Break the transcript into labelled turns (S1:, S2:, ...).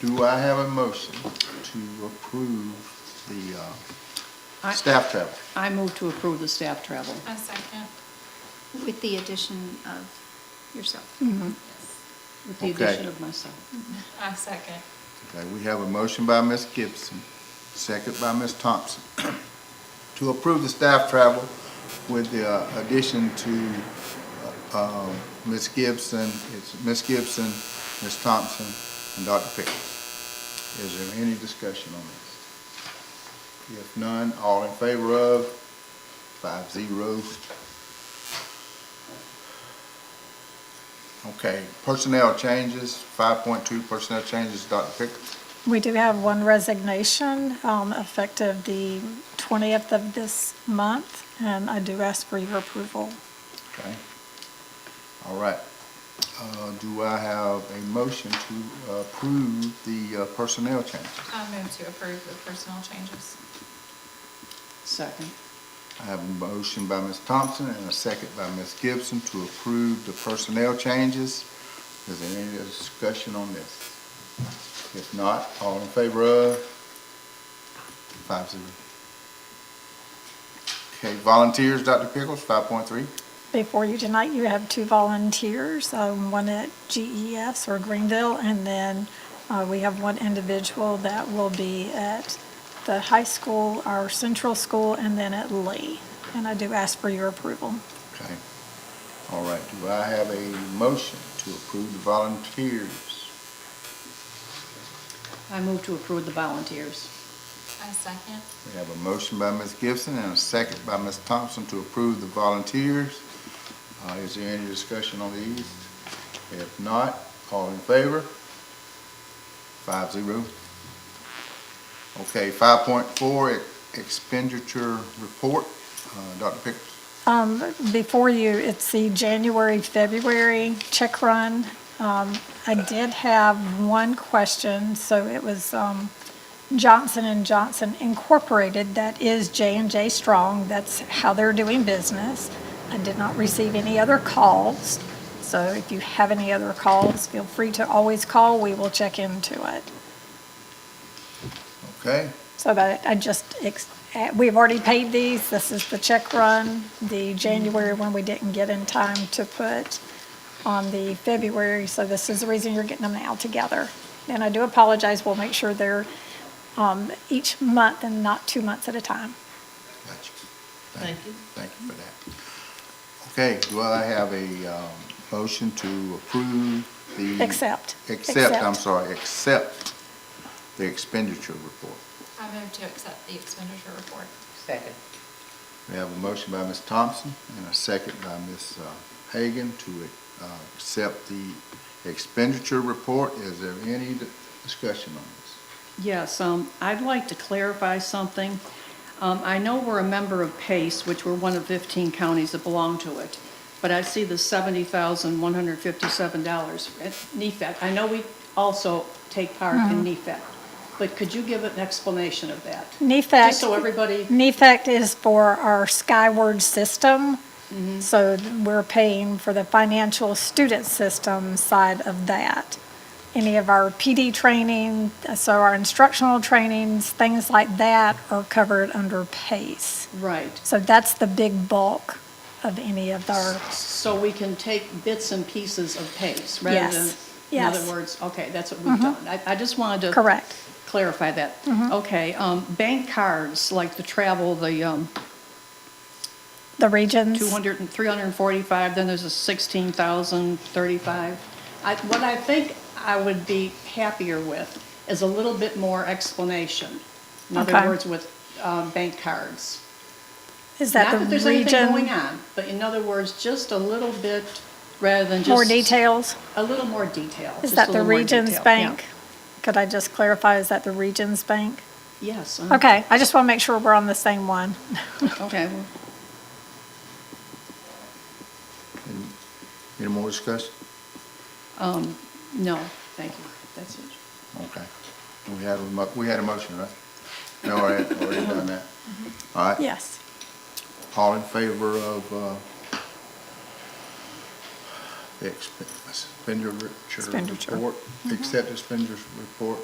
S1: Do I have a motion to approve the uh,
S2: I-
S1: staff travel?
S2: I move to approve the staff travel.
S3: A second.
S4: With the addition of yourself.
S2: With the
S1: Okay.
S2: addition of myself.
S3: A second.
S1: Okay, we have a motion by Ms. Gibson, second by Ms. Thompson, to approve the staff travel with the uh, addition to uh, um, Ms. Gibson, it's Ms. Gibson, Ms. Thompson, and Dr. Pickens. Is there any discussion on this? If none, all in favor of, five zero. Okay, personnel changes, five point two personnel changes, Dr. Pickens.
S5: We do have one resignation um, effective the 20th of this month, and I do ask for your approval.
S1: Okay. All right. Uh, Do I have a motion to approve the uh, personnel changes?
S3: I move to approve the personnel changes.
S2: Second.
S1: I have a motion by Ms. Thompson and a second by Ms. Gibson to approve the personnel changes. Is there any discussion on this? If not, all in favor of? Five zero. Okay, volunteers, Dr. Pickles, five point three.
S5: Before you tonight, you have two volunteers, um, one at GES or Greenville, and then uh, we have one individual that will be at the high school, our central school, and then at Lee. And I do ask for your approval.
S1: Okay. All right, do I have a motion to approve the volunteers?
S2: I move to approve the volunteers.
S3: A second.
S1: We have a motion by Ms. Gibson and a second by Ms. Thompson to approve the volunteers. Uh, is there any discussion on these? If not, all in favor? Five zero. Okay, five point four, e-, expenditure report, uh, Dr. Pickles.
S5: Um, Before you, it's the January, February check run. Um, I did have one question, so it was um, Johnson and Johnson Incorporated, that is J and J Strong, that's how they're doing business. I did not receive any other calls, so if you have any other calls, feel free to always call, we will check into it.
S1: Okay,
S5: So that, I just, ex- eh, we've already paid these, this is the check run, the January one we didn't get in time to put on the February, so this is the reason you're getting them now together. And I do apologize, we'll make sure they're um, each month and not two months at a time.
S1: got you. Thank you for that. Okay, do I have a, um, motion to approve the?
S5: Accept.
S1: Accept, I'm
S5: Accept.
S1: sorry, accept the expenditure report.
S3: I move to accept the expenditure report.
S6: Second.
S1: We have a motion by Ms. Thompson and a second by Ms. uh, Hagan to, uh, accept the expenditure report. Is there any di- discussion on this?
S2: Yes, um, I'd like to clarify something. Um, I know we're a member of PACE, which we're one of 15 counties that belong to it, but I see the $70,157 at E NEFAC. I know we also take part in E NEFAC, but could you give an explanation of that?
S5: NEFAC.
S2: Just so everybody-
S5: NEFAC E is for our Skyward system.
S2: Mm-hmm.
S5: So th- we're paying for the financial student system side of that. Any of our PD training, so our instructional trainings, things like that are covered under PACE.
S2: Right.
S5: So that's the big bulk of any of our,
S2: So we can take bits and pieces of PACE rather than,
S5: Yes,
S2: in
S5: yes. Mm-hmm.
S2: other words, okay, that's what we've done. I, I just wanted to.
S5: correct. Mm-hmm.
S2: clarify that. Okay, um, bank cards, like the travel, the, um,
S5: The regions.
S2: 200 and 345, then there's a 16,035. I, what I think I would be happier with is a little bit more explanation. In other
S5: Okay.
S2: words, with, um, bank cards.
S5: Is that
S2: Not that
S5: the region?
S2: there's anything going on, but in other words, just a little bit, rather than just.
S5: More details?
S2: A little more detail. just
S5: Is
S2: a
S5: that the
S2: little more
S5: Regions
S2: detail,
S5: Bank? Could I just clarify, is that the Regions Bank?
S2: yeah. Yes. uh,
S5: Okay, I just want to make sure we're on the same one.
S2: Okay, well,
S1: Any more discussion?
S2: no, thank you. That's it.
S1: Okay. We had, a mo- we had a motion, right? No, I had already done that.
S5: Mm-hmm.
S1: All right.
S5: Yes.
S1: All in favor of, uh, the expen- expenditure
S5: Expenditure.
S1: report? Accept expenditure report